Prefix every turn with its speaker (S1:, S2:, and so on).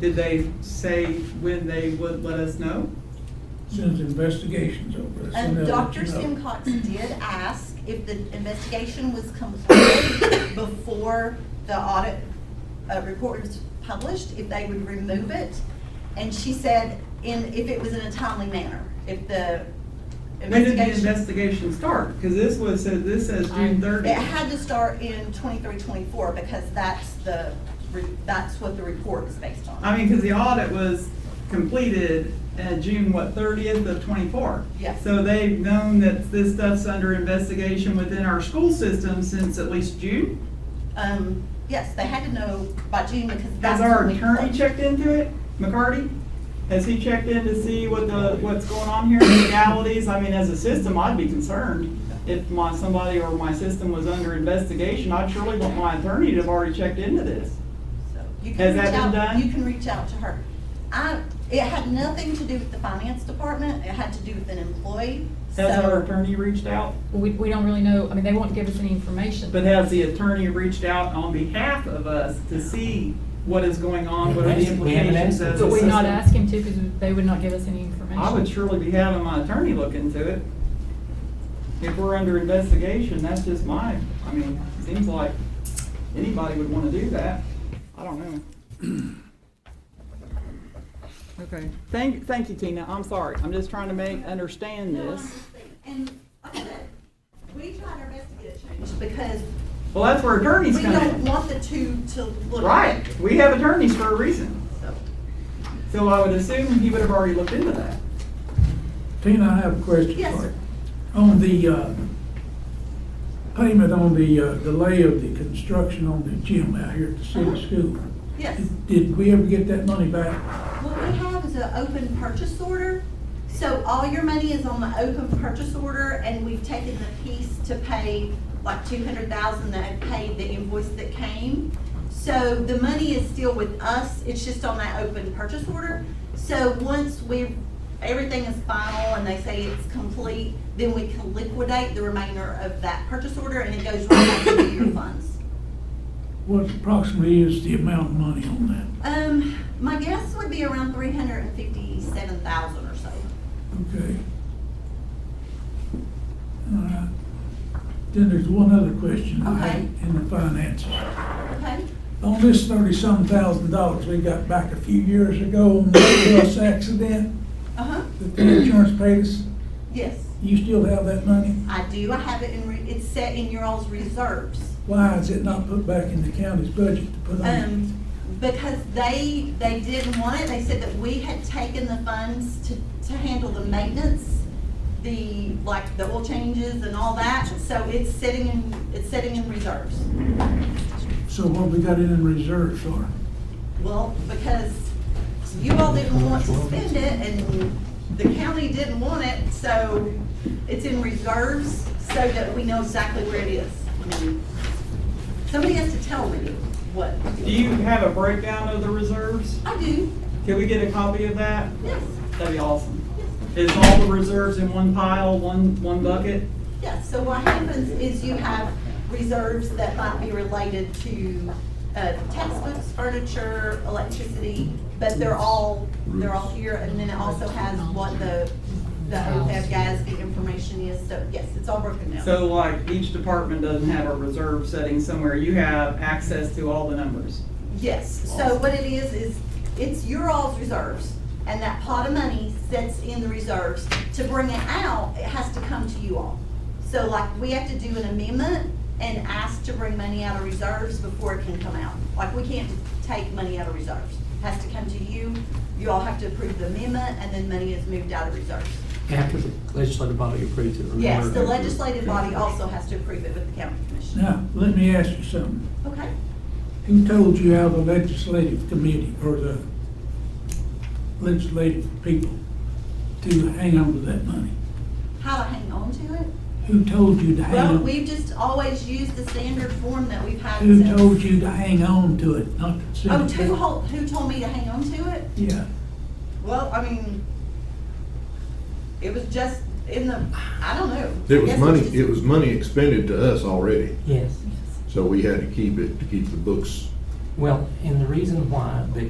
S1: Did they say when they would let us know?
S2: Since investigation's over. that's when
S3: Um,
S2: they'll let
S3: Dr.
S2: you know.
S3: Simcox did ask if the investigation was completed before the audit uh, report was published, if they would remove it. And she said in, if it was in a timely manner, if the
S1: When did the
S3: investigation.
S1: investigation start? Because this was, said- this says June
S4: I'm-
S3: It
S1: thirtieth.
S3: had to start in 23, 24 because that's the, re- that's what the report is based on.
S1: I mean, because the audit was completed at June, what, thirtieth of twenty-four?
S3: Yes.
S1: So they've known that this stuff's under investigation within our school system since at least June?
S3: Um, yes, they had to know by June because
S1: Has
S3: that's.
S1: our
S3: when we-
S1: attorney checked into it, McCarty? Has he checked in to see what the, what's going on here, legalities? I mean, as a system, I'd be concerned if my, somebody or my system was under investigation. I'd surely want my attorney to have already checked into this.
S3: So you
S1: Has
S3: can
S1: that
S3: reach
S1: been
S3: out,
S1: done?
S3: you can reach out to her. I, it had nothing to do with the finance department, it had to do with an employee, so.
S1: Has our attorney reached out?
S4: We, we don't really know, I mean, they won't give us any information.
S1: But has the attorney reached out on behalf of us to see what is going on, what are the
S5: We haven't
S1: implications
S5: asked.
S1: as a
S4: But we're not
S1: system?
S4: asking to, because they would not give us any information.
S1: I would surely be having my attorney look into it. If we're under investigation, that's just my, I mean, seems like anybody would wanna do that. I don't know. Okay, thank, thank you, Tina. I'm sorry. I'm just trying to make, understand this.
S3: And, okay, we tried our best to get it changed because
S1: Well, that's where attorneys
S3: we
S1: come
S3: don't
S1: in.
S3: want the two to look.
S1: Right, we have attorneys for a reason.
S3: So,
S1: So I would assume he would have already looked into that.
S2: Tina, I have a question
S3: Yes,
S2: for
S3: sir.
S2: you. On the, uh, payment on the, uh, delay of the construction on the gym out here at the city school.
S3: Uh-huh. Yes,
S2: Did we ever get that money back?
S3: what we have is an open purchase order, so all your money is on the open purchase order and we've taken the piece to pay like two hundred thousand that had paid the invoice that came. So the money is still with us, it's just on that open purchase order. So once we, everything is final and they say it's complete, then we can liquidate the remainder of that purchase order and it goes right back to your funds.
S2: What approximately is the amount of money on that?
S3: Um, my guess would be around three hundred and fifty-seven thousand or so.
S2: Okay. All right. Then there's one other question I had
S3: Okay.
S2: in the finances.
S3: Okay,
S2: On this thirty-some thousand dollars we got back a few years ago on the bus accident
S3: uh-huh,
S2: that the insurance paid us,
S3: yes,
S2: you still have that money?
S3: I do, I have it in, re- it's set in your all's reserves.
S2: Why is it not put back in the county's budget to put on?
S3: Um, because they, they didn't want it, they said that we had taken the funds to, to handle the maintenance, the, like, the oil changes and all that, so it's sitting in, it's sitting in reserves.
S2: So what we got it in reserve for?
S3: Well, because you all didn't want to spend it and the county didn't want it, so it's in reserves so that we know exactly where it is. I mean, Somebody has to tell me what.
S1: Do you have a breakdown of the reserves?
S3: I do,
S1: Can we get a copy of that?
S3: yes,
S1: That'd be awesome. Is all the reserves in one pile, one, one bucket?
S3: yes. So what happens is you have reserves that might be related to uh, textbooks, furniture, electricity, but they're all, they're all here. And then it also has what the, the OPEB GASB information is, so yes, it's all broken down.
S1: So like each department doesn't have a reserve setting somewhere, you have access to all the numbers.
S3: Yes, so what it is, is it's your all's reserves, and that pot of money sits in the reserves. To bring it out, it has to come to you all. So like, we have to do an amendment and ask to bring money out of reserves before it can come out. Like, we can't take money out of reserves. It Has to come to you, you all have to approve the amendment, and then money is moved out of reserves.
S5: After the legislative body approves it. remember?
S3: Yes, the legislative body also has to approve it with the county commission.
S2: Now, let me ask you something.
S3: Okay?
S2: Who told you how the legislative committee or the legislative people to hang on to that money?
S3: How to hang on to it?
S2: Who told you to hang
S3: Well,
S2: on?
S3: we've just always used the standard form that we've had since.
S2: Who told you to hang on to it, not to send
S3: Oh,
S2: it
S3: who,
S2: back?
S3: hol- who told me to hang on to it?
S2: Yeah,
S3: Well, I mean, it was just in the, I don't know. I
S6: It was
S3: guess
S6: money,
S3: just-
S6: it was money expended to us already,
S5: Yes.
S6: so we had to keep it, to keep the books.
S5: Well, and the reason why the